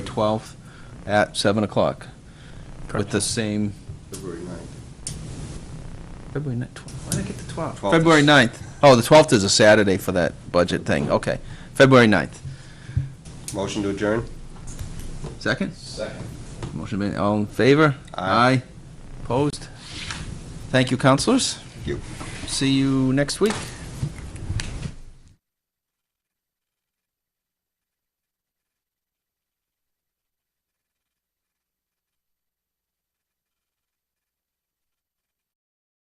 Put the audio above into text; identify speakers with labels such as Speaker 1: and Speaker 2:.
Speaker 1: 12th at 7 o'clock. With the same,
Speaker 2: February 9th.
Speaker 1: February 9th, why did I get the 12th?
Speaker 2: 12th.
Speaker 1: February 9th. Oh, the 12th is a Saturday for that budget thing, okay. February 9th.
Speaker 2: Motion to adjourn?
Speaker 1: Second?
Speaker 2: Second.
Speaker 1: Motion made, all in favor?
Speaker 2: Aye.
Speaker 1: Opposed? Thank you, counselors.
Speaker 2: You.
Speaker 1: See you next week.